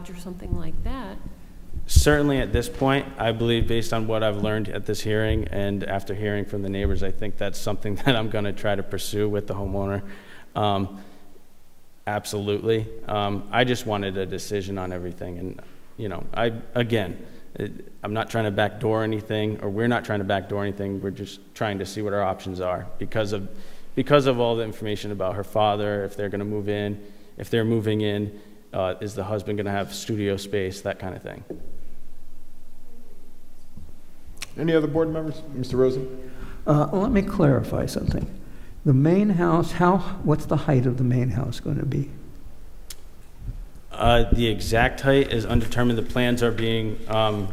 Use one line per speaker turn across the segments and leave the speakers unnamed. garage or something like that.
Certainly at this point, I believe, based on what I've learned at this hearing and after hearing from the neighbors, I think that's something that I'm going to try to pursue with the homeowner. Um, Absolutely. Um, I just wanted a decision on everything, and, you know, I, again, it- I'm not trying to backdoor anything, or we're not trying to backdoor anything, we're just trying to see what our options are because of, because of all the information about her father, if they're going to move in, if they're moving in, uh, is the husband going to have studio space, that kind of thing.
Any other board members? Mr. Rosen?
Uh, Let me clarify something. The main house, how, what's the height of the main house going to be?
Uh, The exact height is undetermined. The plans are being um,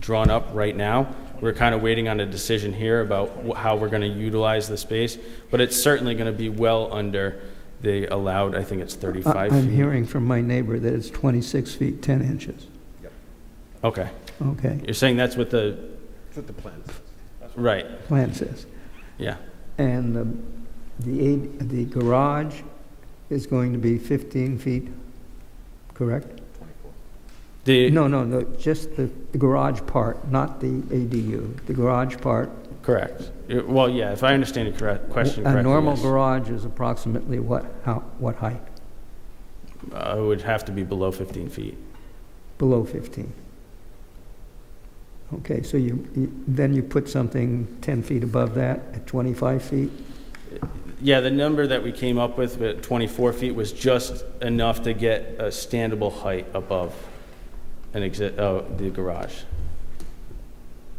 drawn up right now. We're kind of waiting on a decision here about wh- how we're going to utilize the space, but it's certainly going to be well under the allowed, I think it's
I-
35
Uh, I'm
feet.
hearing from my neighbor that it's 26 feet, 10 inches.
Okay.
Okay,
You're saying that's what the,
That's what the plan
right,
plan says.
yeah.
And the- the, eight- the garage is going to be 15 feet, correct?
The,
No, no, no, just the the garage part, not the ADU. The garage part.
correct. Uh, Well, yeah, if I understand your correct- question correctly.
A normal
yes.
garage is approximately what, how, what height?
Uh, It would have to be below 15 feet.
Below 15. Okay, so you, you- then you put something 10 feet above that at 25 feet?
Yeah, the number that we came up with, but 24 feet, was just enough to get a standable height above an exi, uh, the garage.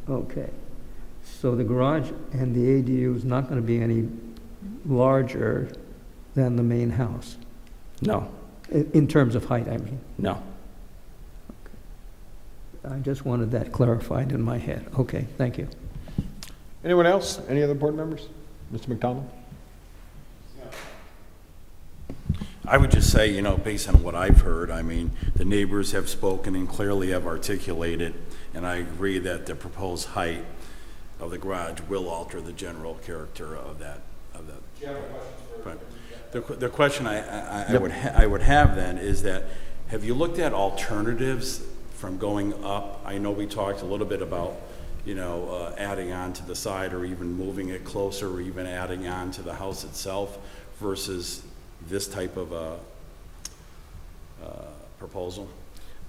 Okay. So the garage and the ADU is not going to be any larger than the main house,
No,
i- in terms of height, I mean.
no.
I just wanted that clarified in my head. Okay, thank you.
Anyone else? Any other board members? Mr. McDonald?
I would just say, you know, based on what I've heard, I mean, the neighbors have spoken and clearly have articulated, and I agree that the proposed height of the garage will alter the general character of that, of that. Do you have a question The, que- the question I, I, I would, ha- I would have then is that, have you looked at alternatives from going up? I know we talked a little bit about, you know, uh, adding on to the side or even moving it closer or even adding on to the house itself versus this type of a proposal?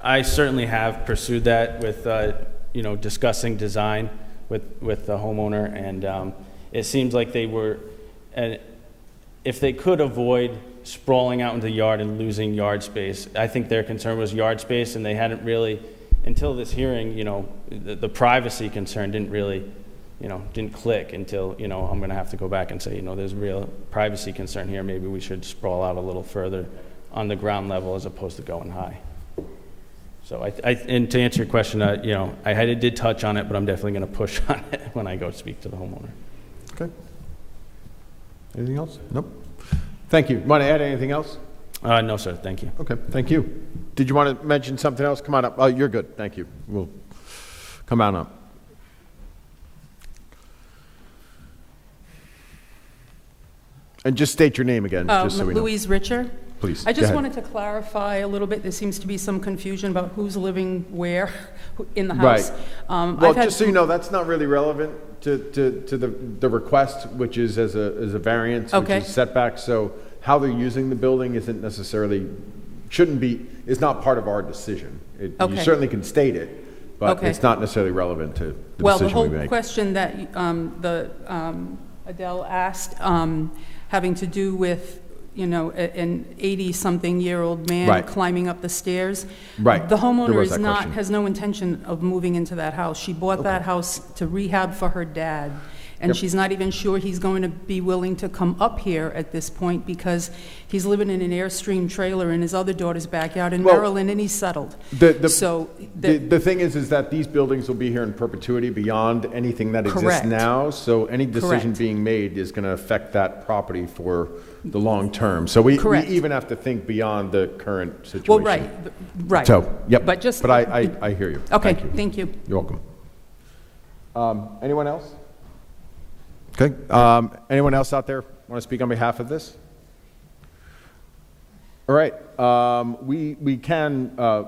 I certainly have pursued that with, uh, you know, discussing design with, with the homeowner, and um, it seems like they were, and if they could avoid sprawling out into the yard and losing yard space, I think their concern was yard space, and they hadn't really, until this hearing, you know, the, the privacy concern didn't really, you know, didn't click until, you know, I'm going to have to go back and say, you know, there's real privacy concern here, maybe we should sprawl out a little further on the ground level as opposed to going high. So I, I, and to answer your question, uh, you know, I had, I did touch on it, but I'm definitely going to push on it when I go speak to the homeowner.
Okay. Anything else? Nope. Thank you. Want to add anything else?
Uh, no, sir, thank you.
Okay, thank you. Did you want to mention something else? Come on up. Oh, you're good. Thank you. We'll come on up. And just state your name again,
Uh,
just so we know.
Louise Richer.
Please,
I
go
just
ahead.
wanted to clarify a little bit, there seems to be some confusion about who's living where who- in the
Right.
house. Um,
Well,
I've had-
just so you know, that's not really relevant to, to, to the, the request, which is as a, as a variance, which
Okay.
is setback. So how they're using the building isn't necessarily, shouldn't be, is not part of our decision. It- You
Okay.
certainly can state it, but
Okay.
it's not necessarily relevant to the
Well, the
decision we
whole
make.
question that um, the um, Adele asked, um, having to do with, you know, a- an 80-something-year-old man
Right.
climbing up the stairs.
Right.
The
There
homeowner
was
is
that
not,
question.
has no intention of moving into that house. She bought that house to rehab for her dad, and
Yep.
she's not even sure he's going to be willing to come up here at this point because he's living in an Airstream trailer in his other daughter's backyard in
Well,
Maryland, and he's settled.
The, the,
So
the,
that-
the thing is, is that these buildings will be here in perpetuity beyond anything that exists
Correct.
now. So any decision
Correct.
being made is going to affect that property for the long term. So we, we
Correct.
even have to think beyond the current situation.
Well, right, b- right.
So, yep.
But just.
But I, I, I hear you.
Okay,
Thank you.
thank you.
You're welcome. Um, anyone else? Okay. Um, anyone else out there want to speak on behalf of this? All right, um, we, we can, uh,